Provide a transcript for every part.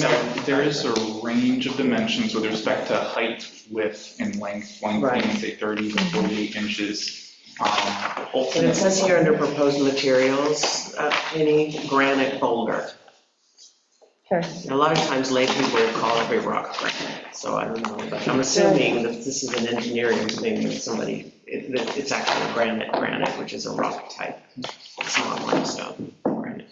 No, there is a range of dimensions with respect to height, width, and length. Length being, Right. say, 30 to 48 inches. Um, And it ultimately- says here under proposed materials, uh, any granite boulder. Okay. A lot of times lay people would call every rock granite, so I don't know, but I'm assuming that this is an engineering thing that somebody, it- that it's actually granite, granite, which is a rock type. It's not limestone, granite.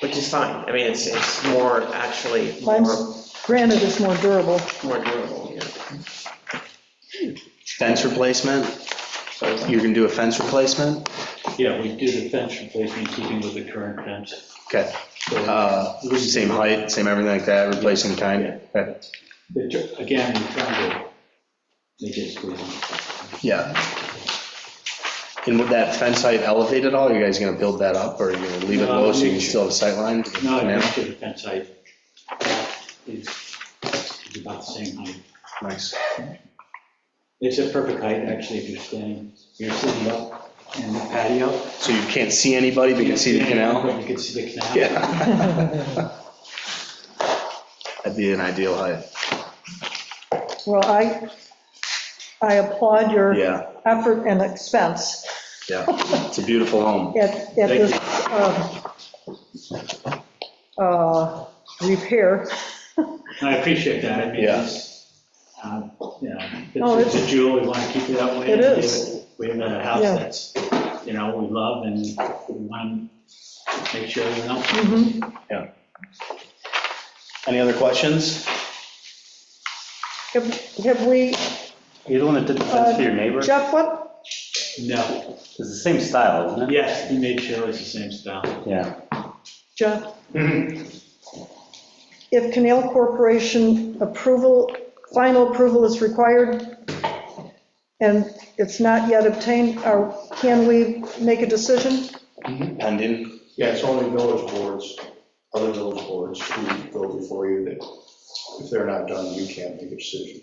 Which is fine, I mean, it's, it's more actually, more, Limes- Granite is more durable. more durable, yeah. Fence replacement, you can do a fence replacement? Yeah, we do the fence replacement, keeping with the current fence. Okay, So uh, same height, same everything like that, replacing kind? Okay. the tr- Again, we're trying to make it squeeze. Yeah. And would that fence height elevate at all? Are you guys gonna build that up, or are you gonna leave it No, low so you we- can still have sight line? No, I think the fence height is is about the same height. Nice. It's a perfect height, actually, if you're standing, you're sitting up in the patio. So you can't see anybody, but you can see the canal? You can see the canal. Yeah. That'd be an ideal height. Well, I, I applaud your Yeah, effort and expense yeah. It's a beautiful home. at, at this um, uh, repair. And I appreciate that, I mean, Yeah. it's, um, you know, No, it's Oh, it's- a jewel, we want to keep it that way. It We have- is. We have a house Yeah. that's, you know, we love and we want to make sure everyone else. Mhm. Any other questions? Have have we, uh, You're the one that did the fence for your neighbor? It's Jeff, what, No, the same style, isn't it? yes, he made sure it's the same style. Yeah. Jeff? Mm-hmm. If Canal Corporation approval, final approval is required and it's not yet obtained, or can we make a decision? Pending? Yeah, it's only village boards, other village boards who go before you that if they're not done, you can't make a decision.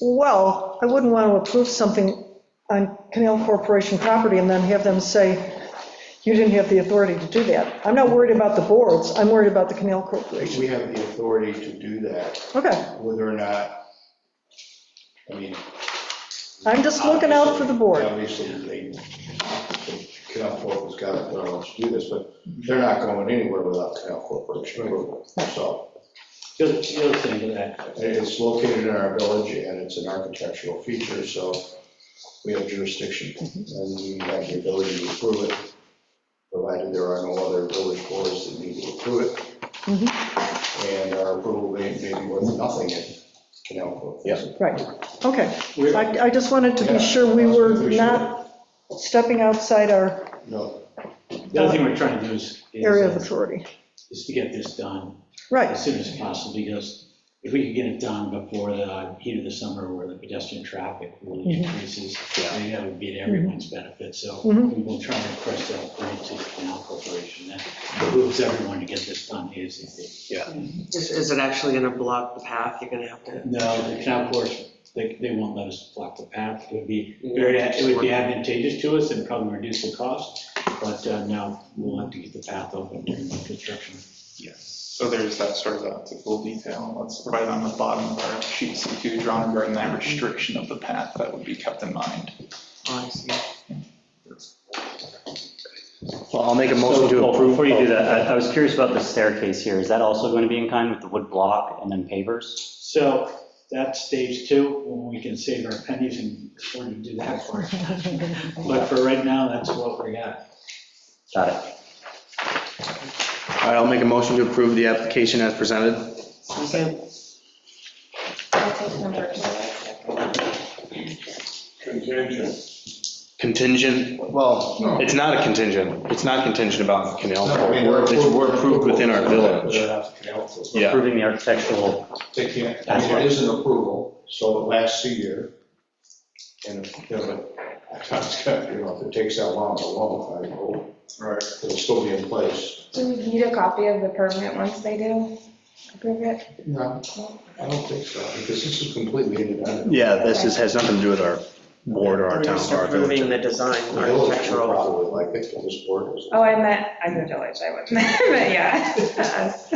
Well, I wouldn't want to approve something on Canal Corporation property and then have them say, you didn't have the authority to do that. I'm not worried about the boards, I'm worried about the Canal Corporation. We have the authority to do that, Okay, whether or not, I mean. I'm just looking out for the board. Obviously, they, Canal Corp has got authority to do this, but they're not going anywhere without Canal Corporation approval. So You'll, you'll think of that. it's located in our village and it's an architectural feature, so we have jurisdiction. And we have the ability to approve it, provided there are no other village boards that need to approve Mhm. it. And our approval may may be worth nothing if Canal Corp. Yep. Right, okay. We're- I, I just wanted to be sure we were not stepping outside our No, The other thing we're trying to do is, is, area of uh, authority. is to get this done Right, as soon as possible, because if we could get it done before the heat of the summer where the pedestrian traffic really Mhm. increases, I think that would be to everyone's benefit, so Mhm. we will try to press that point to the canal corporation, that moves everyone to get this done ASAP. Is is it actually going to block the path? You're going to have to, No, the canal corporation, they, they won't let us block the path, it would be very, it would be advantageous to us and probably reduce the cost, but uh, no, we'll have to get the path open during the construction. Yes, so there's that sort of uh, technical detail. That's right on the bottom of our sheet C2 drawn regarding that restriction of the path that would be kept in mind. oh, I see. Well, I'll make a motion to So, well, approve. Before you do that, I I was curious about the staircase here. Is that also going to be in kind with the wood block and then pavers? So that's stage two, when we can save our pennies and afford to do that part. But for right now, that's what we got. Got it. All right, I'll make a motion to approve the application as presented. Second. Contingent. Contingent, well, it's not a contingent. It's not contingent about Canal. No, I mean, We're it's- we're approved within our They're village. not Canal Corp. Yeah. Approving the architectural, They can't, I mean, it is an approval, so it lasts a year. And if, you know, it's got- you know, if it takes that long, it's a long time, it'll- Right. it'll still be in place. Do we need a copy of the permit once they do approve it? No, I don't think so, because this is completely independent. Yeah, this is, has nothing to do with our board or our We're town just or our village. approving the design, The village would architectural. probably like it, but this board is. Oh, I meant, I'm the village, I wasn't, but yeah. us.